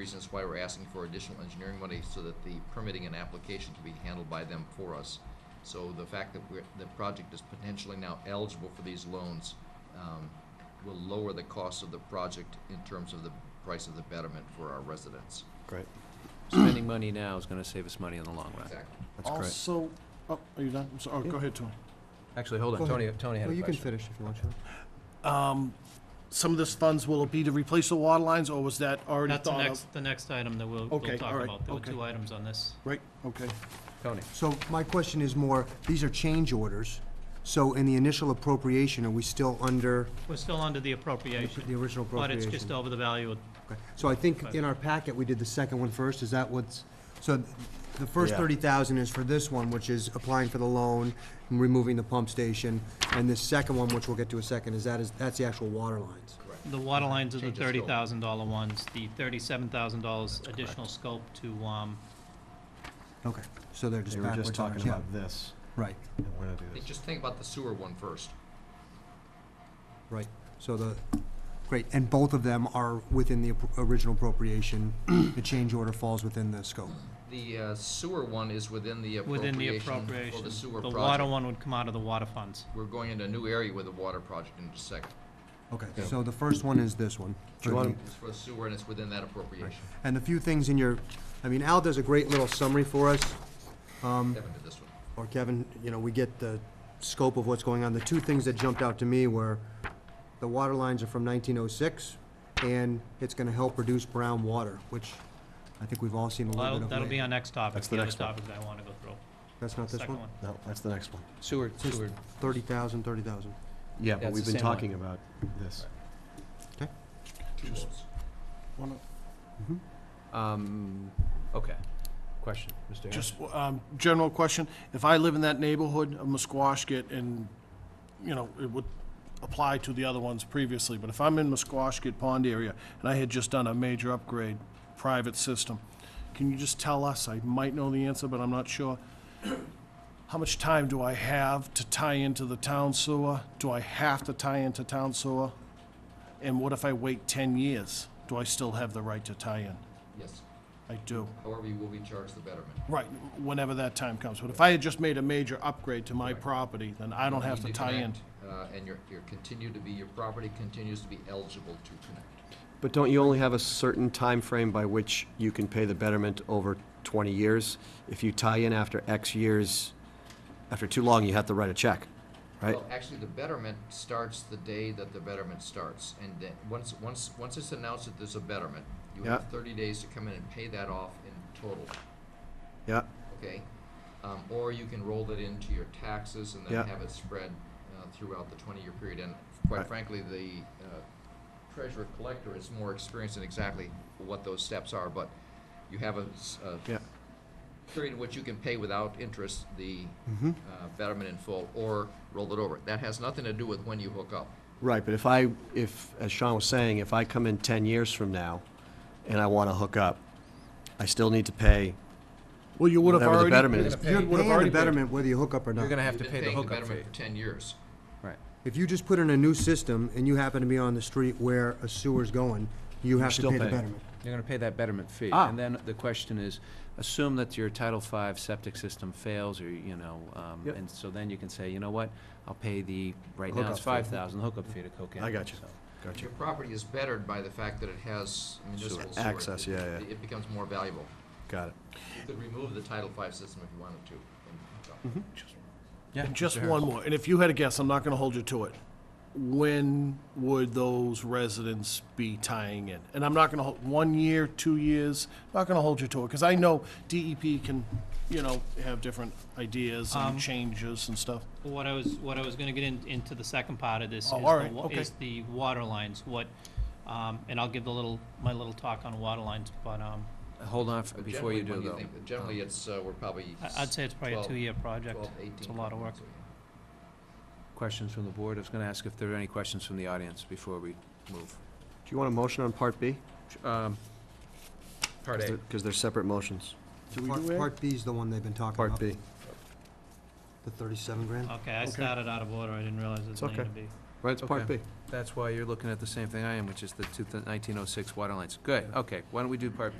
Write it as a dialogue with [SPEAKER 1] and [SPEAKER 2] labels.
[SPEAKER 1] reasons why we're asking for additional engineering money so that the permitting and application can be handled by them for us. So the fact that we're, the project is potentially now eligible for these loans um, will lower the cost of the project in terms of the price of the betterment for our residents.
[SPEAKER 2] Great.
[SPEAKER 3] Spending money now is gonna save us money in the long run.
[SPEAKER 1] Exactly.
[SPEAKER 2] That's great.
[SPEAKER 4] Also, oh, are you done? I'm sorry. Oh, go ahead, Tony.
[SPEAKER 3] Actually, hold on,
[SPEAKER 2] Go
[SPEAKER 3] Tony,
[SPEAKER 2] ahead.
[SPEAKER 3] Tony had
[SPEAKER 2] Well,
[SPEAKER 3] a
[SPEAKER 2] you can
[SPEAKER 3] question.
[SPEAKER 2] finish if you want to.
[SPEAKER 4] Um, some of this funds, will it be to replace the water lines, or was that already
[SPEAKER 5] That's the
[SPEAKER 4] thought of?
[SPEAKER 5] next, the next item that we'll, we'll
[SPEAKER 4] Okay, all
[SPEAKER 5] talk
[SPEAKER 4] right,
[SPEAKER 5] about. There were
[SPEAKER 4] okay.
[SPEAKER 5] two items on this.
[SPEAKER 4] Right, okay.
[SPEAKER 3] Tony,
[SPEAKER 2] So my question is more, these are change orders, so in the initial appropriation, are we still under
[SPEAKER 5] We're still under
[SPEAKER 2] the
[SPEAKER 5] the appropriation,
[SPEAKER 2] original
[SPEAKER 5] but
[SPEAKER 2] appropriation?
[SPEAKER 5] it's just over the value of,
[SPEAKER 2] Okay. So I think in our packet, we did the second one first, is that what's, so th- the first
[SPEAKER 3] Yeah.
[SPEAKER 2] thirty thousand is for this one, which is applying for the loan, and removing the pump station, and this second one, which we'll get to a second, is that is, that's the actual water lines.
[SPEAKER 5] the water lines are the
[SPEAKER 1] Change of scope.
[SPEAKER 5] thirty thousand dollar ones, the thirty-seven thousand dollars additional scope to, um,
[SPEAKER 2] Okay, so they're just
[SPEAKER 6] They were
[SPEAKER 2] backwards.
[SPEAKER 6] just talking
[SPEAKER 2] on- yeah,
[SPEAKER 6] about this,
[SPEAKER 2] Right,
[SPEAKER 6] and we're gonna do
[SPEAKER 1] Hey,
[SPEAKER 6] this.
[SPEAKER 1] Just think about the sewer one first.
[SPEAKER 2] right, so the, great, and both of them are within the appro- original appropriation, the change order falls within the scope.
[SPEAKER 1] The uh, sewer one is within the
[SPEAKER 5] within the
[SPEAKER 1] appropriation for
[SPEAKER 5] appropriation.
[SPEAKER 1] the sewer project.
[SPEAKER 5] water one would come out of the water funds.
[SPEAKER 1] We're going into a new area with the water project in just a second.
[SPEAKER 2] Okay, so the first one is this one.
[SPEAKER 6] Do you want
[SPEAKER 1] It's for sewer and it's within that appropriation.
[SPEAKER 2] And the few things in your, I mean, Al does a great little summary for us,
[SPEAKER 1] Kevin did this one.
[SPEAKER 2] or Kevin, you know, we get the scope of what's going on. The two things that jumped out to me were the water lines are from nineteen oh six, and it's gonna help reduce brown water, which I think we've all seen a little
[SPEAKER 5] That'll,
[SPEAKER 2] bit of.
[SPEAKER 5] that'll be
[SPEAKER 2] lately.
[SPEAKER 5] our next topic,
[SPEAKER 6] That's the
[SPEAKER 5] the other
[SPEAKER 6] next one.
[SPEAKER 5] topic that I wanna go through.
[SPEAKER 2] That's not this
[SPEAKER 5] Second
[SPEAKER 2] one?
[SPEAKER 6] No, that's the next one.
[SPEAKER 3] sewer, sewer,
[SPEAKER 2] Thirty thousand, thirty thousand.
[SPEAKER 6] Yeah,
[SPEAKER 3] That's
[SPEAKER 6] but we've
[SPEAKER 3] the
[SPEAKER 6] been
[SPEAKER 3] same one.
[SPEAKER 6] talking about this.
[SPEAKER 1] Two votes.
[SPEAKER 4] Wanna-
[SPEAKER 3] um, okay. Question, Mr. Harris?
[SPEAKER 4] Just, um, general question, if I live in that neighborhood of Musquashkett and, you know, it would apply to the other ones previously, but if I'm in Musquashkett Pond area and I had just done a major upgrade, private system, can you just tell us, I might know the answer, but I'm not sure, how much time do I have to tie into the town sewer? Do I have to tie into town sewer? And what if I wait ten years? Do I still have the right to tie in?
[SPEAKER 1] Yes,
[SPEAKER 4] I do.
[SPEAKER 1] however, you will be charged the betterment.
[SPEAKER 4] Right, whenever that time comes. But if I had just made a major upgrade to my property, then I don't have to
[SPEAKER 1] Need
[SPEAKER 4] tie in.
[SPEAKER 1] connect, Uh, and your, your continue to be, your property continues to be eligible to connect.
[SPEAKER 6] But don't you only have a certain time frame by which you can pay the betterment over 20 years? If you tie in after X years, after too long, you have to write a check, right?
[SPEAKER 1] Well, actually, the betterment starts the day that the betterment starts, and then, once, once, once it's announced that there's a betterment, you have
[SPEAKER 6] Yeah.
[SPEAKER 1] thirty days to come in and pay that off in total,
[SPEAKER 6] Yeah,
[SPEAKER 1] okay? Um, or you can roll it into your taxes and
[SPEAKER 6] Yeah.
[SPEAKER 1] then have it spread, uh, throughout the twenty-year period, and quite
[SPEAKER 6] Right.
[SPEAKER 1] frankly, the, uh, treasurer collector is more experienced in exactly what those steps are, but you have a, s- a
[SPEAKER 6] yeah.
[SPEAKER 1] period in which you can pay without interest the
[SPEAKER 6] Mm-hmm.
[SPEAKER 1] uh, betterment in full or roll it over. That has nothing to do with when you hook up.
[SPEAKER 6] Right, but if I, if, as Sean was saying, if I come in 10 years from now and I want to hook up, I still need to pay
[SPEAKER 4] Well, you would have
[SPEAKER 6] whatever the
[SPEAKER 4] already.
[SPEAKER 6] betterment is.
[SPEAKER 4] You would have
[SPEAKER 2] Paying the
[SPEAKER 4] already paid.
[SPEAKER 2] betterment whether you hook up or
[SPEAKER 3] You're
[SPEAKER 2] not.
[SPEAKER 3] gonna have to
[SPEAKER 1] You've
[SPEAKER 3] pay
[SPEAKER 1] been
[SPEAKER 3] the
[SPEAKER 1] paying the
[SPEAKER 3] hookup fee.
[SPEAKER 1] betterment for 10 years.
[SPEAKER 3] Right.
[SPEAKER 2] If you just put in a new system and you happen to be on the street where a sewer's going, you have to
[SPEAKER 6] still
[SPEAKER 2] pay the
[SPEAKER 6] paying.
[SPEAKER 2] betterment.
[SPEAKER 3] You're gonna pay that betterment fee.
[SPEAKER 6] Ah.
[SPEAKER 3] And then the question is, assume that your Title V septic system fails, or, you know, um,
[SPEAKER 6] Yep.
[SPEAKER 3] and so then you can say, you know what? I'll pay the, right now
[SPEAKER 6] Hookup
[SPEAKER 3] it's
[SPEAKER 6] fee.
[SPEAKER 3] five thousand, hookup fee to Coke Inlet.
[SPEAKER 6] I got you.
[SPEAKER 3] so.
[SPEAKER 6] Got you.
[SPEAKER 1] Your property is bettered by the fact that it has municipal sewer.
[SPEAKER 6] Access,
[SPEAKER 1] It-
[SPEAKER 6] yeah, yeah.
[SPEAKER 1] It becomes more valuable.
[SPEAKER 6] Got it.
[SPEAKER 1] You could remove the Title V system if you wanted to. and hook
[SPEAKER 5] Mm-hmm.
[SPEAKER 1] up.
[SPEAKER 3] Yeah.
[SPEAKER 4] Just
[SPEAKER 3] Mr. Harris.
[SPEAKER 4] one more. And if you had a guess, I'm not going to hold you to it. When would those residents be tying in? And I'm not going to hold, one year, two years, not going to hold you to it. Because I know DEP can, you know, have different ideas
[SPEAKER 5] Um,
[SPEAKER 4] and changes and stuff.
[SPEAKER 5] What I was, what I was gonna get in, into the second part of this is
[SPEAKER 4] Oh, all
[SPEAKER 5] the
[SPEAKER 4] right,
[SPEAKER 5] wa-
[SPEAKER 4] okay.
[SPEAKER 5] is the water lines, what, um, and I'll give the little, my little talk on water lines, but, um,
[SPEAKER 3] Hold on f-
[SPEAKER 1] But
[SPEAKER 3] before you
[SPEAKER 1] generally,
[SPEAKER 3] do
[SPEAKER 1] when
[SPEAKER 3] though. Um,
[SPEAKER 1] think- Generally, it's, uh, we're probably.
[SPEAKER 5] I- I'd say it's probably a
[SPEAKER 1] 12
[SPEAKER 5] two-year project.
[SPEAKER 1] 12, 18.
[SPEAKER 5] It's a lot of work.
[SPEAKER 1] so, yeah.
[SPEAKER 3] Questions from the board? I was gonna ask if there are any questions from the audience before we move.
[SPEAKER 6] Do you want a motion on Part B?
[SPEAKER 3] Um, Part A.
[SPEAKER 6] Because they're separate motions.
[SPEAKER 4] Do we
[SPEAKER 2] Part-
[SPEAKER 4] do it?
[SPEAKER 2] Part B's the one they've been talking
[SPEAKER 6] Part
[SPEAKER 2] about.
[SPEAKER 6] B.
[SPEAKER 2] The thirty-seven grand?
[SPEAKER 5] okay, I started out of order, I didn't realize it was
[SPEAKER 6] It's okay.
[SPEAKER 5] going to be.
[SPEAKER 6] Right, it's Part
[SPEAKER 3] Okay.
[SPEAKER 6] B.
[SPEAKER 3] oh that's why you're looking at the same thing I am, which is the 1906 water lines. Good, okay, why don't we do Part B?